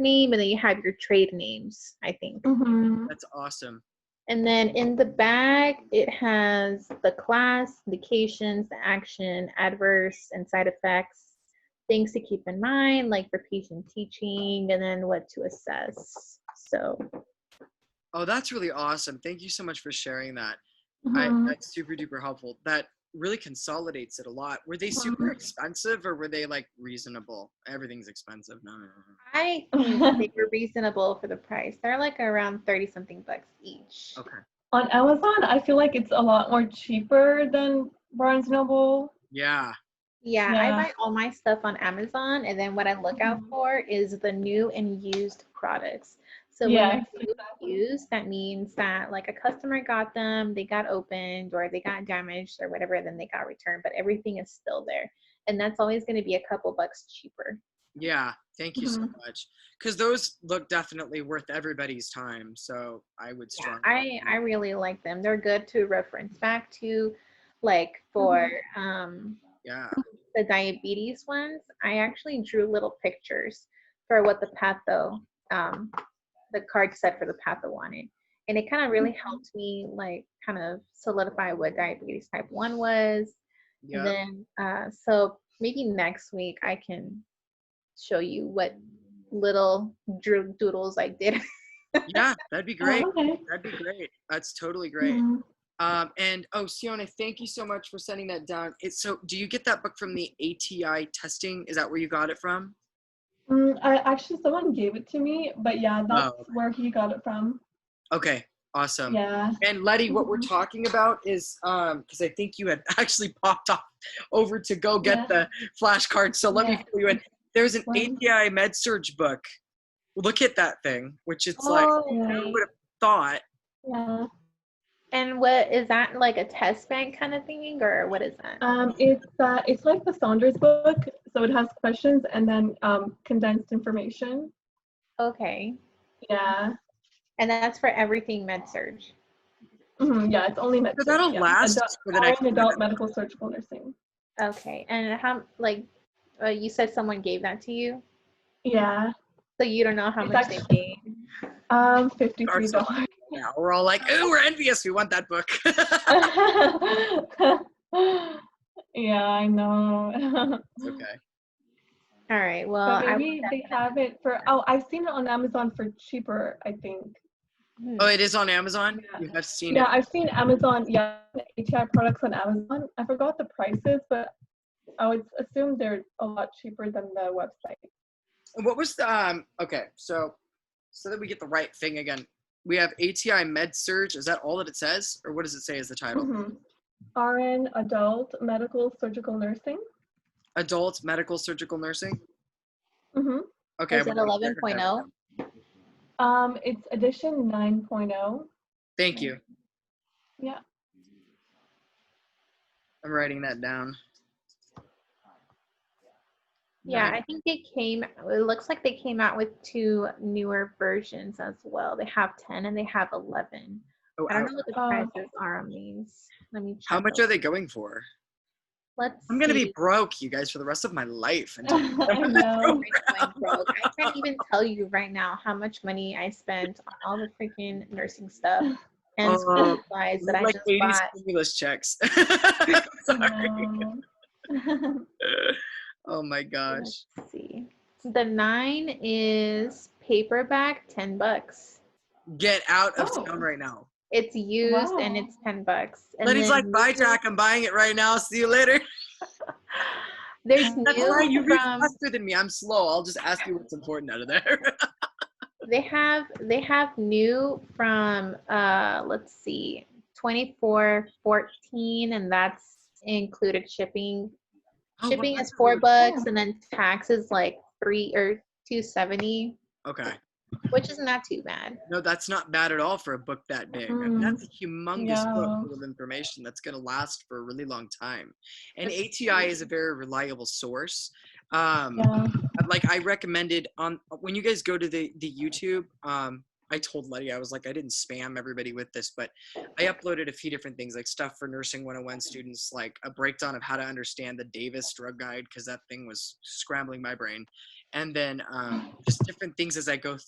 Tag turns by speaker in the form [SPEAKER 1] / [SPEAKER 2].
[SPEAKER 1] name and then you have your trade names, I think.
[SPEAKER 2] Mm-hmm.
[SPEAKER 3] That's awesome.
[SPEAKER 1] And then in the back, it has the class, indications, the action, adverse, and side effects, things to keep in mind, like for patient teaching, and then what to assess. So,
[SPEAKER 3] Oh, that's really awesome. Thank you so much for sharing that.
[SPEAKER 2] Mhm.
[SPEAKER 3] I, that's super duper helpful. That really consolidates it a lot. Were they super
[SPEAKER 2] Mhm.
[SPEAKER 3] expensive or were they like reasonable? Everything's expensive. No, no, no. no.
[SPEAKER 1] I think they were reasonable for the price. They're like around 30 something bucks each.
[SPEAKER 3] Okay.
[SPEAKER 2] On Amazon, I feel like it's a lot more cheaper than Barnes Noble.
[SPEAKER 3] Yeah.
[SPEAKER 1] Yeah,
[SPEAKER 2] Yeah.
[SPEAKER 1] I buy all my stuff on Amazon, and then what I look out
[SPEAKER 2] Mhm.
[SPEAKER 1] for is the new and used products. So
[SPEAKER 2] Yeah,
[SPEAKER 1] when they're new and used, that means that like a customer got them, they got opened, or they got damaged, or whatever, then they got returned. But everything is still there, and that's always going to be a couple bucks cheaper.
[SPEAKER 3] Yeah. Thank you so
[SPEAKER 1] Mm-hmm.
[SPEAKER 3] much. Because those look definitely worth everybody's time. So I would
[SPEAKER 1] Yeah,
[SPEAKER 3] strongly.
[SPEAKER 1] I I really like them. They're good to reference back to, like for
[SPEAKER 2] Mm-hmm.
[SPEAKER 1] um
[SPEAKER 3] Yeah.
[SPEAKER 1] the diabetes ones, I actually drew little pictures for what the patho, um, the card said for the patho wanted. And it kind of really helped me like kind of solidify what diabetes type one was.
[SPEAKER 3] Yeah.
[SPEAKER 1] And then, uh, so maybe next week I can show you what little drew doodles I did.
[SPEAKER 3] yeah. That'd be great.
[SPEAKER 2] Oh, okay.
[SPEAKER 3] That'd be great. That's totally great.
[SPEAKER 2] Mhm.
[SPEAKER 3] Um, and oh, Sione, thank you so much for sending that down. It's so. Do you get that book from the ATI testing? Is that where you got it from?
[SPEAKER 2] Mm, I actually someone gave it to me, but yeah, that's
[SPEAKER 3] Oh, okay. Um,
[SPEAKER 2] where he got it from.
[SPEAKER 3] Okay, awesome.
[SPEAKER 2] Yeah.
[SPEAKER 3] And Letty, what we're
[SPEAKER 2] Mhm.
[SPEAKER 3] talking about is um, because I think you had actually popped off over to go get
[SPEAKER 2] Yeah.
[SPEAKER 3] the flashcards. So let me
[SPEAKER 2] Yeah.
[SPEAKER 3] fill you in. There's an
[SPEAKER 2] Wow.
[SPEAKER 3] ATI med surge book. Look at that thing, which it's like I
[SPEAKER 1] Oh,
[SPEAKER 3] would have thought.
[SPEAKER 2] Yeah.
[SPEAKER 1] and what is that like a test bank kind of thing or what is that?
[SPEAKER 2] Um, it's uh, it's like the Saunders book, so it has questions and then um, condensed information.
[SPEAKER 1] Okay.
[SPEAKER 2] Yeah.
[SPEAKER 1] And that's for everything med surge.
[SPEAKER 2] Mhm, yeah, it's only
[SPEAKER 3] So
[SPEAKER 2] medical.
[SPEAKER 3] that'll
[SPEAKER 2] yeah.
[SPEAKER 3] last
[SPEAKER 2] Adult,
[SPEAKER 3] for the next.
[SPEAKER 2] or in adult medical surgical nursing.
[SPEAKER 1] Okay, and how like uh, you said someone gave that to you,
[SPEAKER 2] Yeah.
[SPEAKER 1] so you don't know how
[SPEAKER 2] It's
[SPEAKER 1] much they paid.
[SPEAKER 2] Um, fifty three dollars.
[SPEAKER 3] Yeah, we're all like, oh, we're envious. We want that book.
[SPEAKER 2] yeah, I know.
[SPEAKER 3] It's okay.
[SPEAKER 1] All right, well, I,
[SPEAKER 2] but maybe they have it for. Oh, I've seen it on Amazon for cheaper. I think.
[SPEAKER 1] hmm,
[SPEAKER 3] Oh, it is on Amazon.
[SPEAKER 2] Yeah.
[SPEAKER 3] You have seen
[SPEAKER 2] Yeah,
[SPEAKER 3] it.
[SPEAKER 2] I've seen Amazon. Yeah, ATI products on Amazon. I forgot the prices, but I would assume they're a lot cheaper than the website.
[SPEAKER 3] And What was the um? Okay, so so that we get the right thing again, we have ATI Med Surge. Is that all that it says, or what does it say as the title?
[SPEAKER 1] Mm-hmm.
[SPEAKER 2] Mhm. RN, adult, medical, surgical nursing.
[SPEAKER 3] Adult Medical Surgical Nursing.
[SPEAKER 2] hmm
[SPEAKER 3] Okay.
[SPEAKER 1] Is
[SPEAKER 3] I'm
[SPEAKER 1] it oh?
[SPEAKER 3] gonna-
[SPEAKER 1] 11.0?
[SPEAKER 2] Um, it's edition oh. 9.0.
[SPEAKER 3] Thank you.
[SPEAKER 2] Yeah.
[SPEAKER 3] I'm writing that down.
[SPEAKER 1] yeah,
[SPEAKER 3] Nine-
[SPEAKER 1] I think they came. It looks like they came out with two newer versions as well. They have ten and they have eleven.
[SPEAKER 3] oh,
[SPEAKER 1] I don't
[SPEAKER 3] ouch.
[SPEAKER 1] know what the
[SPEAKER 2] Oh,
[SPEAKER 1] prices
[SPEAKER 2] okay.
[SPEAKER 1] are on these. Let me check.
[SPEAKER 3] How much
[SPEAKER 1] real-
[SPEAKER 3] are they going for?
[SPEAKER 1] Let's.
[SPEAKER 3] I'm gonna
[SPEAKER 1] see.
[SPEAKER 3] be broke, you guys, for the rest of my life. until-
[SPEAKER 2] I know.
[SPEAKER 1] I'm broke. I can't even tell you right now how much money I spent on all the freaking nursing stuff and
[SPEAKER 3] Oh,
[SPEAKER 1] school supplies that I
[SPEAKER 3] like
[SPEAKER 1] just
[SPEAKER 3] 80
[SPEAKER 1] bought.
[SPEAKER 3] stimulus checks. I'm Sorry.
[SPEAKER 2] No.
[SPEAKER 3] Oh my gosh.
[SPEAKER 1] Let's see. The nine is paperback, ten bucks.
[SPEAKER 3] Get out of
[SPEAKER 2] Oh.
[SPEAKER 3] town right now.
[SPEAKER 1] It's used and
[SPEAKER 2] Wow.
[SPEAKER 1] it's ten bucks. And
[SPEAKER 3] Letty's like,
[SPEAKER 1] then
[SPEAKER 3] bye, Jack. I'm buying it right now. See you later.
[SPEAKER 1] There's
[SPEAKER 3] That's why you
[SPEAKER 1] new
[SPEAKER 3] read
[SPEAKER 1] from
[SPEAKER 3] faster than me. I'm slow. I'll just ask you what's important out of there.
[SPEAKER 1] they have they have new from uh let's see twenty four fourteen and that's included shipping
[SPEAKER 3] Oh,
[SPEAKER 1] shipping
[SPEAKER 3] wow.
[SPEAKER 1] is four bucks and then tax is like three or two seventy
[SPEAKER 3] Okay.
[SPEAKER 1] which is not too bad
[SPEAKER 3] No, that's not bad at all for a book that big. I mean,
[SPEAKER 2] Mm.
[SPEAKER 3] that's a humongous
[SPEAKER 2] Yeah.
[SPEAKER 3] book full of information that's going to last for a really long time. And ATI is a very reliable source. Um,
[SPEAKER 2] yeah.
[SPEAKER 3] Like I recommended on when you guys go to the the YouTube. Um, I told Letty I was like I didn't spam everybody with this, but I uploaded a few different things like stuff for nursing 101 students, like a breakdown of how to understand the Davis drug guide because that thing was scrambling my brain and then um, just different things as I go